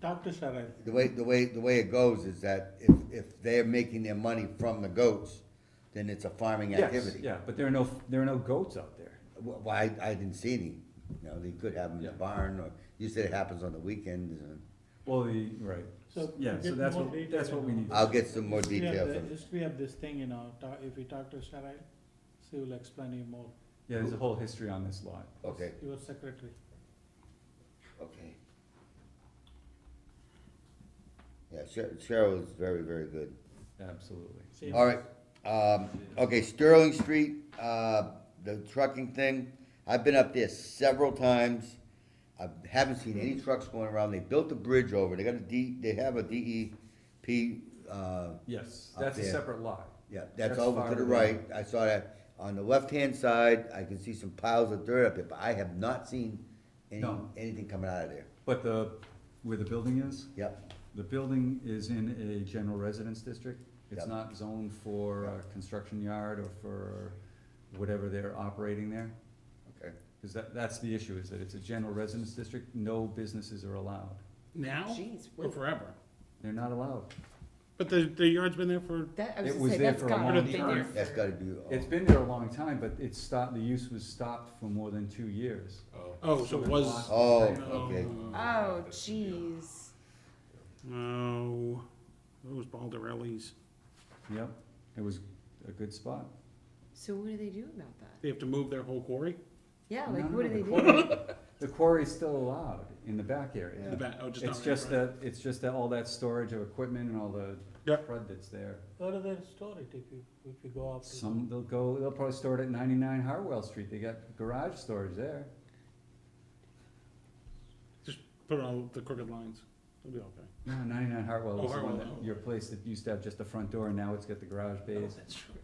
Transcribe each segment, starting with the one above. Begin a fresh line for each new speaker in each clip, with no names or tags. Dr. Sarai,
The way, the way, the way it goes is that if, if they're making their money from the goats, then it's a farming
Yes,
activity.
yeah, but there are no, there are no goats out there.
Well, well, I, I didn't see any, you know, they could have them in the
Yeah.
barn, or you said it happens on the weekends, and
Well, the, right,
So,
yeah,
we
so
get
that's
more
what,
detail
that's what we
now.
need.
I'll get some more
history of
details.
the,
on-
history of this thing, you know, ta- if we talk to Sarai, she will explain you more,
Yeah, there's a whole history on this lot.
Okay,
your secretary.
okay. Yeah, Sher- Cheryl is very, very good.
Absolutely.
She
All
knows.
right, um, okay, Sterling Street, uh, the trucking thing, I've been up there several times. I haven't seen any trucks going around, they built a bridge over, they got a D, they have a DEP, uh,
Yes,
Up
that's a
there.
separate lot.
yeah, that's
That's
over to the
farther
right, I saw that. On the left-hand side, I can see some piles of dirt up there, but I have not seen any,
No.
anything coming out of there.
But the, where the building is,
Yep,
the building is in a general residence district. It's
Yep.
not zoned for a construction yard or for whatever they're operating there.
okay.
Cause that, that's the issue, is that it's a general residence district, no businesses are allowed.
Now?
Jeez,
Or
wait.
forever?
They're not allowed.
But the, the yard's been there for,
That, I
It
was
was
gonna say,
there
that's
for a
gotta
long
be
time.
there.
That's
for-
gotta be,
It's
oh,
been there a long time, but it stopped, the use was stopped for more than two years.
oh, so it was,
oh, okay,
Oh, jeez.
no, those Baldarellis.
Yep, it was a good spot.
So what do they do about that?
They have to move their whole quarry?
Yeah,
No,
like,
no,
what do
no,
they
the
do?
quarry- The quarry's still allowed in the back area.
The back, oh, just not.
It's just that, it's just that all that storage of equipment and all the
Yeah.
crud that's there.
Where do they store it if you, if you go up? to-
Some, they'll go, they'll probably store it at ninety-nine Hartwell Street, they got garage storage there.
Just put on the crooked lines. It'll be okay.
No, ninety-nine Hartwell
Oh,
is the one
Hartwell,
that,
oh.
your place that used to have just the front door, and now it's got the garage bays.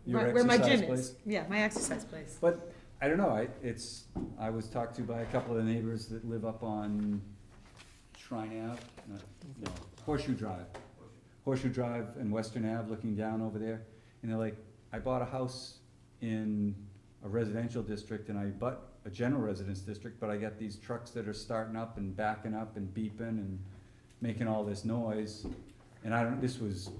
Your
Right, Where my
exercise
gym
place.
is. Yeah, my exercise place.
But, I don't know, I, it's, I was talked to by a couple of the neighbors that live up on Shrine Ave, no, no, Horseshoe Drive. Horseshoe Drive and Western Ave, looking down over there, and they're like, I bought a house in a residential district and I bought a general residence district, but I got these trucks that are starting up and backing up and beeping and making all this noise. And I don't, this was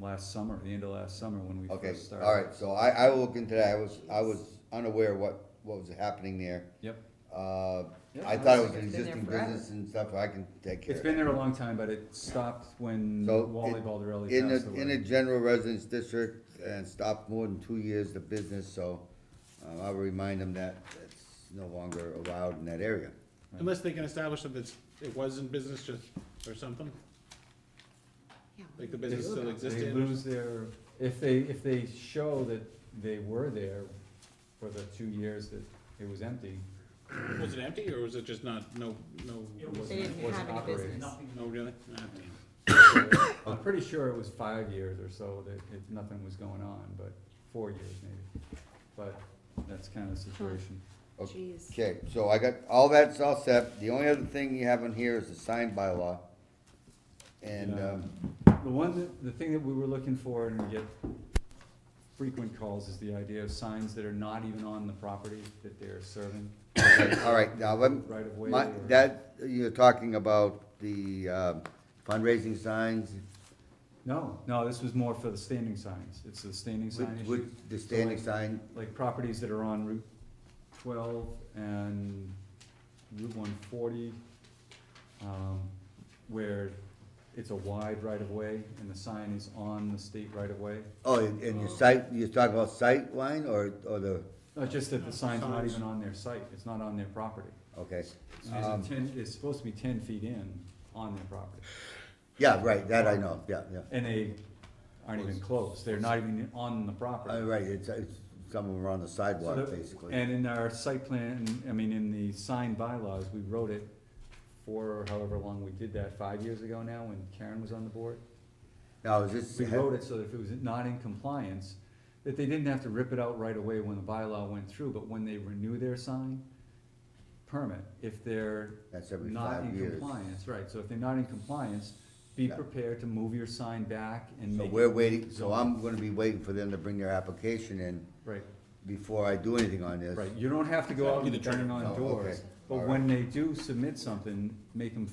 last summer, the end of last summer when we
okay,
first started.
alright, so I, I will look into that, I was, I was unaware what, what was happening there.
Yep.
Uh,
Yeah,
I
no,
thought it was
it's-
an
It's been there
existing
forever.
business and stuff, I can take care
It's
of
been
it.
there a long time, but it stopped when
So,
Wally
it-
Baldarelli
In
passed
the, in the
away.
general residence district and stopped more than two years the business, so, uh, I'll remind them that it's no longer allowed in that area.
Unless they can establish that it's, it was in business just, or something,
Yeah, what
like the
do they
business
do
still
about
existed.
They lose their, if they, if they show that they were there for the two years that it was empty.
Was it empty or was it just not, no, no,
wasn't-
They didn't
wasn't
have any
operating.
business.
no really? Ah, damn.
I'm pretty sure it was five years or so that it, nothing was going on, but four years maybe. But that's kind of the situation.
it? Jeez.
Okay, so I got, all that's all set, the only other thing you have on here is the sign bylaw. And,
Yeah.
um,
The one, that- the thing that we were looking for and we get frequent calls is the idea of signs that are not even on the property that they're serving
alright, now, let me-
right of way.
my,
or-
that, you're talking about the, um fundraising signs,
No, no, this was more for the standing signs, it's the standing
with,
sign issue,
with the standing sign,
like properties that are on Route twelve and Route one forty, um, where it's a wide right-of-way and the sign is on the state right-of-way.
oh, and and your site, you're talking about sight line or, or the,
Not Uh, just that the sign's not
Signs.
even on their site, it's not on their property.
okay.
It's a
Um,
ten, it's supposed to be ten feet in on their property,
Yeah, right, that I know, yeah, yeah.
and they aren't even close, they're not even on the property.
Uh, right, it's, it's, some of them are on the
So
sidewalk,
that-
basically.
And in our site plan, I mean, in the signed bylaws, we wrote it for however long we did that, five years ago now, when Karen was on the board.
Now, is this,
We wrote it so that if it was not in compliance, that they didn't have to rip it out right away when the bylaw went through, but when they renew their sign permit, if they're
that's every
not
five
in
years.
compliance, right, so if they're not in compliance, be
Yeah.
prepared to move your sign back and
So
make.
we're waiting, so
zoning.
I'm gonna be waiting for them to bring their application in
Right.
before I do anything on this.
Right, you don't have to go out
That'll be
and
the
bang
trigger.
on
Oh,
doors,
okay.
but
All
when they do submit something, make them